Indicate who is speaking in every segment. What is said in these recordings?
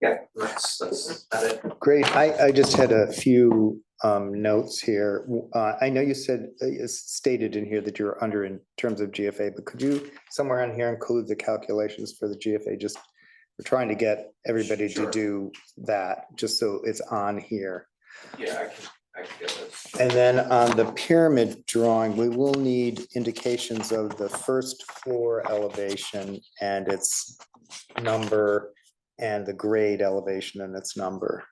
Speaker 1: Yeah, that's, that's about it.
Speaker 2: Great. I, I just had a few um, notes here. Uh, I know you said, uh, it's stated in here that you're under in terms of GFA, but could you somewhere on here include the calculations for the GFA? Just, we're trying to get everybody to
Speaker 1: Sure.
Speaker 2: do that, just so it's on here.
Speaker 1: Yeah, I can, I can get this.
Speaker 2: And then on the pyramid drawing, we will need indications of the first floor elevation and its number and the grade elevation and its number,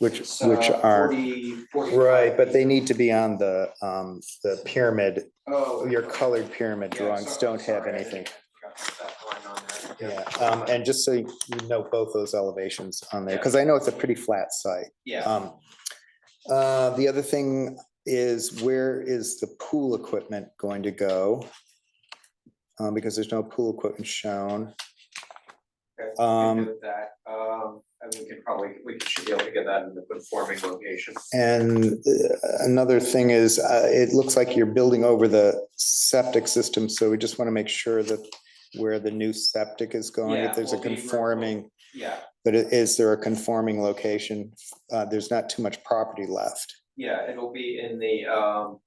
Speaker 2: which,
Speaker 1: It's, uh,
Speaker 2: which are,
Speaker 1: 40 45.
Speaker 2: right, but they need to be on the, um, the pyramid,
Speaker 1: Oh.
Speaker 2: your colored pyramid
Speaker 1: yeah,
Speaker 2: drawings
Speaker 1: sorry,
Speaker 2: don't have
Speaker 1: sorry, I
Speaker 2: anything.
Speaker 1: didn't- I forgot to put that line on there.
Speaker 2: Yeah, um, and just so you note both those elevations on there,
Speaker 1: Yeah.
Speaker 2: because I know it's a pretty flat site.
Speaker 1: Yeah,
Speaker 2: Um, uh, the other thing is where is the pool equipment going to go? Um, because there's no pool equipment shown.
Speaker 1: okay, we
Speaker 2: um,
Speaker 1: can do that, um, and we can probably, we should be able to get that in the conforming location.
Speaker 2: And uh, another thing is, uh, it looks like you're building over the septic system, so we just want to make sure that where the new septic is going,
Speaker 1: Yeah,
Speaker 2: if there's a
Speaker 1: will be removed.
Speaker 2: conforming,
Speaker 1: Yeah,
Speaker 2: but i- is there a conforming location? Uh, there's not too much property left.
Speaker 1: yeah, it'll be in the, um,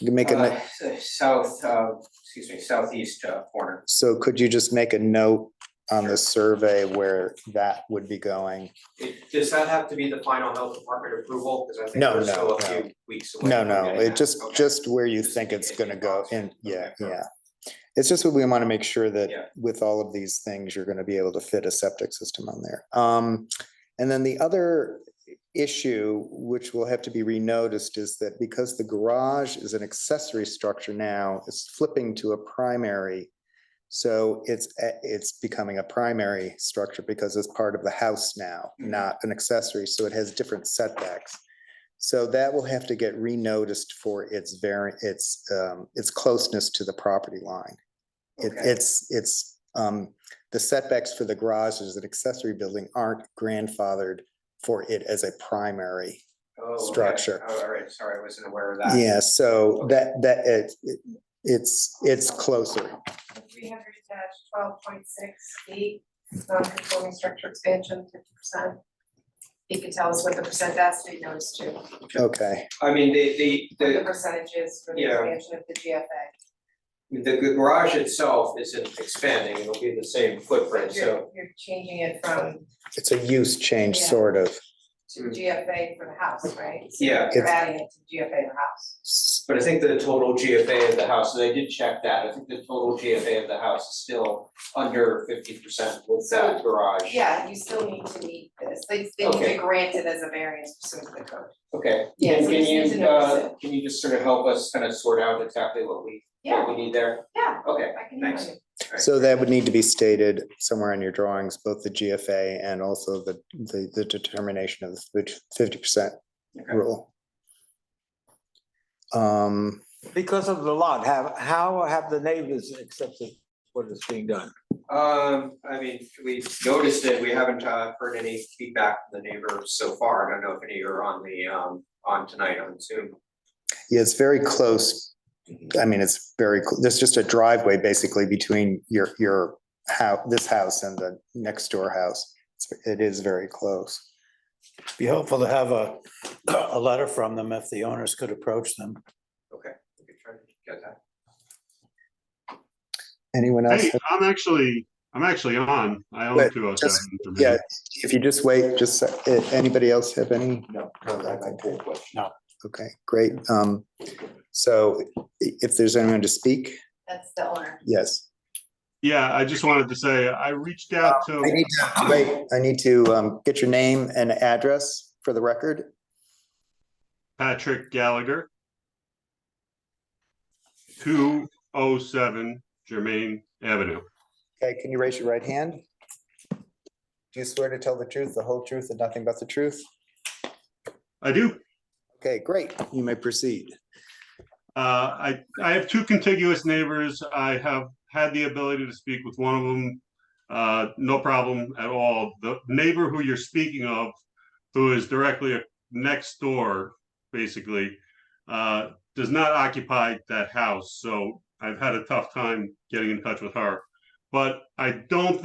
Speaker 2: You can make a,
Speaker 1: uh,
Speaker 2: no-
Speaker 1: s- south, uh, excuse me, southeast uh, corner.
Speaker 2: So could you just make a note on
Speaker 1: Sure.
Speaker 2: the survey where that would be going?
Speaker 1: It- Does that have to be the final health department approval? Because I think
Speaker 2: No,
Speaker 1: we're
Speaker 2: no,
Speaker 1: still a
Speaker 2: no.
Speaker 1: few weeks away.
Speaker 2: No,
Speaker 1: from
Speaker 2: no,
Speaker 1: getting
Speaker 2: it
Speaker 1: that.
Speaker 2: just,
Speaker 1: Okay.
Speaker 2: just where you
Speaker 1: Just
Speaker 2: think
Speaker 1: in-
Speaker 2: it's
Speaker 1: in
Speaker 2: gonna go
Speaker 1: boxes.
Speaker 2: in, yeah,
Speaker 1: Okay,
Speaker 2: yeah. It's just what we want to make sure that
Speaker 1: Yeah.
Speaker 2: with all of these things, you're gonna be able to fit a septic system on there. Um, and then the other issue, which will have to be renoticed, is that because the garage is an accessory structure now, it's flipping to a primary. So it's, a- it's becoming a primary structure because it's part of the house now,
Speaker 1: Mhm.
Speaker 2: not an accessory, so it has different setbacks. So that will have to get renoticed for its very, its, um, its closeness to the property line. It,
Speaker 1: Okay.
Speaker 2: it's, it's, um, the setbacks for the garages and accessory building aren't grandfathered for it as a primary.
Speaker 1: Oh, okay.
Speaker 2: structure.
Speaker 1: Oh, All right, sorry, I wasn't aware of that.
Speaker 2: Yeah, so
Speaker 1: Okay.
Speaker 2: that, that, it, it- it's, it's closer.
Speaker 3: three hundred dash twelve point six eight, non-conforming structure expansion fifty percent. He could tell us what the percent density goes to, what
Speaker 2: Okay,
Speaker 1: I mean, the, the,
Speaker 3: the
Speaker 1: the,
Speaker 3: percentage is for the
Speaker 1: Yeah.
Speaker 3: expansion of the GFA.
Speaker 1: the garage itself isn't expanding, it'll be the same footprint, so.
Speaker 3: You're, you're changing it from
Speaker 2: it's a use change,
Speaker 3: Yeah.
Speaker 2: sort of.
Speaker 3: to GFA for the house, right? So
Speaker 1: Mm. Yeah.
Speaker 3: You're
Speaker 2: It's-
Speaker 3: adding it to GFA the house.
Speaker 1: But I think the total GFA of the house, and I did check that, I think the total GFA of the house is still under fifty percent with that
Speaker 3: So,
Speaker 1: garage.
Speaker 3: Yeah, you still need to meet this, they, they need
Speaker 1: Okay.
Speaker 3: to grant it as a variance pursuant to the code.
Speaker 1: Okay,
Speaker 3: Yeah,
Speaker 1: and
Speaker 3: so
Speaker 1: can
Speaker 3: just need to
Speaker 1: you,
Speaker 3: notice
Speaker 1: uh, can you just sort of help us kind of sort out exactly what we, what
Speaker 3: Yeah,
Speaker 1: we need there?
Speaker 3: yeah,
Speaker 1: Okay,
Speaker 3: I can hear
Speaker 1: thanks.
Speaker 3: you.
Speaker 2: So that would need to be stated somewhere on your drawings, both the GFA and also the, the, the determination of the fifty percent
Speaker 1: Okay.
Speaker 2: rule. Um,
Speaker 4: Because of the lot, have, how have the neighbors accepted what is being done?
Speaker 1: Um, I mean, we noticed it, we haven't uh heard any feedback from the neighbors so far, I don't know if any are on the um, on tonight on Zoom.
Speaker 2: yeah, it's very close. I mean, it's very, cl- there's just a driveway basically between your, your how, this house and the next door house. It's- It is very close.
Speaker 5: Be helpful to have a, a letter from them if the owners could approach them.
Speaker 1: Okay, we could try to get that.
Speaker 2: Anyone else?
Speaker 6: Hey, I'm actually, I'm actually on. I own
Speaker 2: Wait,
Speaker 6: two oh
Speaker 2: just-
Speaker 6: seven.
Speaker 2: Yeah, if you just wait, just, a sec- eh, anybody else have any?
Speaker 1: No,
Speaker 2: Okay, great. Um, so i- if there's anyone to speak,
Speaker 3: That's the owner.
Speaker 2: yes.
Speaker 6: Yeah, I just wanted to say, I reached out
Speaker 2: Uh, I
Speaker 6: to,
Speaker 2: need to, wait, I need to, um, get your name and address for the record.
Speaker 6: Patrick Gallagher. Two oh seven Germain Avenue.
Speaker 2: Okay, can you raise your right hand? Do you swear to tell the truth, the whole truth, and nothing but the truth?
Speaker 6: I do,
Speaker 2: Okay, great. You may proceed.
Speaker 6: uh, I, I have two contiguous neighbors. I have had the ability to speak with one of them. Uh, no problem at all. The neighbor who you're speaking of, who is directly next door, basically, uh, does not occupy that house, so I've had a tough time getting in touch with her. But I don't